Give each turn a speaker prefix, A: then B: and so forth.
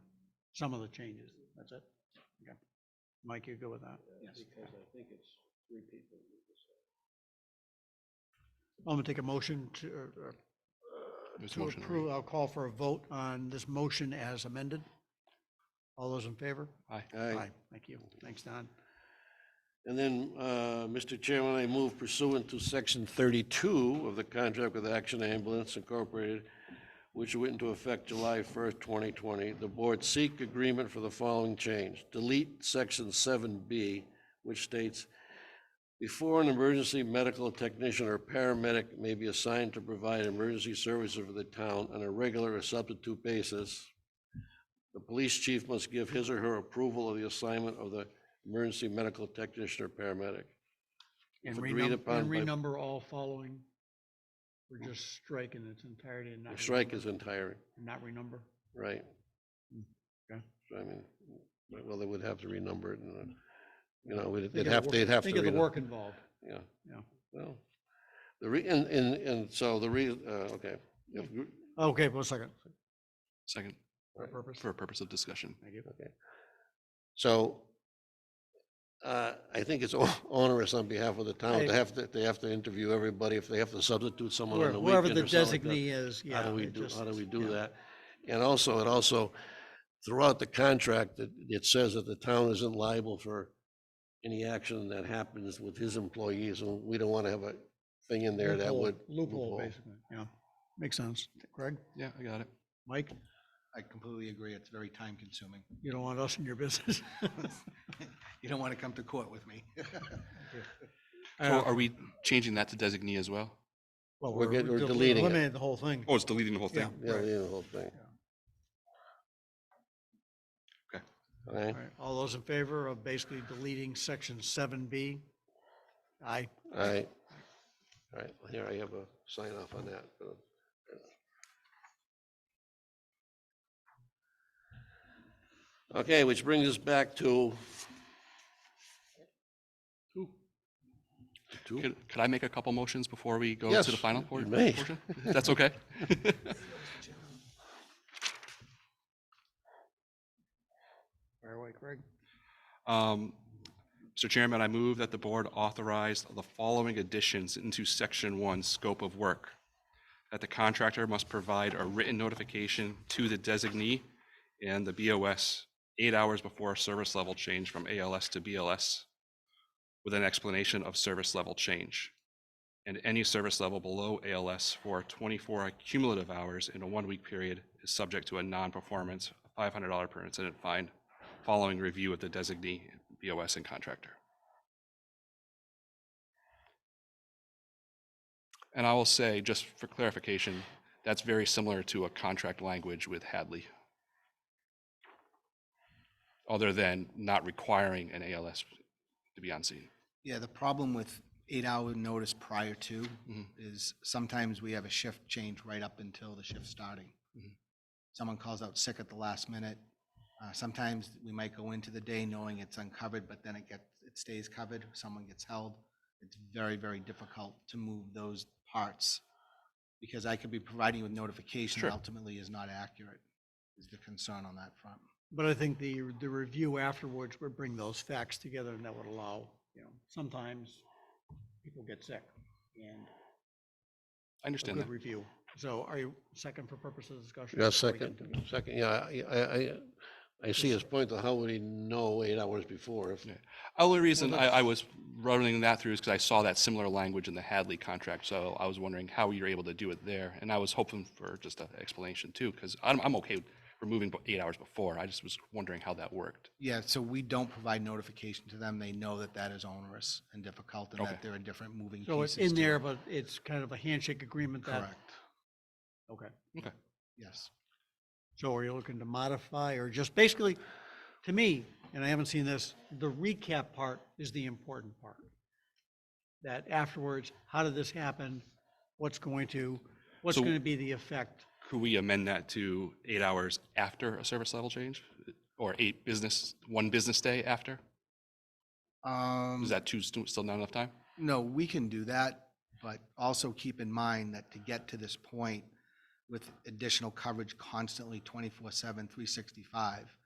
A: some of the changes, that's it. Okay. Mike, you go with that? Yes.
B: Because I think it's three people. who decide.
A: I'm gonna take a motion to, or- or
C: There's a
A: to
C: motion
A: approve,
C: already.
A: I'll call for a vote on this motion as amended. All those in favor?
B: Aye.
A: Thank you. Thanks, Don.
B: And then, uh, Mr. Chairman, I move pursuant to section thirty-two of the contract with Action Ambulance Incorporated, which went into effect July first, twenty twenty, the board seek agreement for the following change. Delete section seven B, which states, before an emergency medical technician or paramedic may be assigned to provide emergency services for the town on a regular or substitute basis, the police chief must give his or her approval of the assignment of the emergency medical technician or paramedic.
A: And
B: If agreed
A: renum-
B: upon
A: and
B: by-
A: renumber all following. We're just striking its entirety and not.
B: Strike
A: renumber-
B: is entire,
A: Not renumber.
B: right?
A: Mm, Okay.
B: So I mean, well, they would have to renumber it and, uh, you know, we'd-
A: Think
B: they'd
A: of the
B: have,
A: work-
B: they'd have to.
A: Think of the
B: renum-
A: work involved.
B: Yeah.
A: Yeah.
B: Well, the re, and, and, and so the re, uh, okay. If gr-
A: Okay, one second.
C: Second,
A: For purpose.
C: for a purpose of discussion.
A: Thank you.
B: So uh, I think it's o- onerous on behalf of the town to
A: I-
B: have to, they have to interview everybody if they have to substitute someone on
A: Where-
B: the
A: Wherever
B: weekend
A: the
B: or something like that.
A: designee is, yeah.
B: How do we
A: it
B: do,
A: just-
B: how do we do
A: yeah.
B: that? And also, it also, throughout the contract, it, it says that the town isn't liable for any action that happens with his employees, and we don't want to have a thing in there that
A: Loophole-
B: would.
A: Loophole, basically, yeah. Makes sense. Greg,
C: Yeah, I got it.
A: Mike,
D: I completely agree. It's very time consuming.
A: you don't want us in your business?
D: You don't want to come to court with me.
C: So are we changing that to designee as well?
A: Uh, Well,
B: We're get- we're
A: del-
B: deleting it.
A: Eliminating the whole thing.
C: Oh, it's deleting the whole
A: Yeah.
C: thing?
B: Yeah,
A: right.
B: the whole thing.
C: Okay.
B: Okay,
A: All right, All those in favor of basically deleting section seven B? Aye.
B: all right. All right, here, I have a sign off on that. uh, Okay, which brings us back to. Two.
C: Could, could I make a couple motions before we go
B: Yes,
C: to the final
B: you
C: por-
B: may.
C: portion? If That's okay?
A: Fire away, Craig.
C: Um, Mr. Chairman, I move that the board authorize the following additions into section one, scope of work. That the contractor must provide a written notification to the designee and the BOS eight hours before service level change from ALS to BLS with an explanation of service level change. And any service level below ALS for twenty-four cumulative hours in a one-week period is subject to a non-performance five hundred dollar per incident fine following review of the designee, BOS, and contractor. And I will say, just for clarification, that's very similar to a contract language with Hadley. Other than not requiring an ALS to be on scene.
D: Yeah, the problem with eight-hour notice prior to
C: Mhm.
D: is sometimes we have a shift change right up until the shift starting.
C: Mhm.
D: Someone calls out sick at the last minute. Uh, Sometimes we might go into the day knowing it's uncovered, but then it gets, it stays covered, someone gets held. It's very, very difficult to move those parts because I could be providing you with notification
C: Sure.
D: that ultimately is not accurate, is the concern on that front.
A: But I think the, the review afterwards would bring those facts together and that would allow, you know, sometimes people get sick and a
C: I understand that.
A: good review. So are you second for purposes of discussion?
B: Yeah,
A: before we
B: second,
A: continue?
B: second, yeah, I, I, I- I see his point, though, how would he know eight hours before if,
C: Yeah. Only reason I, I was running that through is because I saw that similar language in the Hadley contract, so I was wondering how you're able to do it there, and I was hoping for just an explanation too, because I'm, I'm okay with removing bo- eight hours before, I just was wondering how that worked.
D: Yeah, so we don't provide notification to them. They know that that is onerous and difficult and
C: Okay.
D: that there are different moving pieces.
A: So it's in
D: to
A: there,
D: it.
A: but it's kind of a handshake agreement that,
D: Correct,
A: okay.
D: yes.
A: So are you looking to modify or just basically, to me, and I haven't seen this, the recap part is the important part. That afterwards, how did this happen? What's going to, what's
C: So-
A: going to be the effect?
C: Could we amend that to eight hours after a service level change, or eight business, one business day after?
D: Um,
C: Is that two, stu- still not enough time?
D: no, we can do that, but also keep in mind that to get to this point with additional coverage constantly 24/7, 365,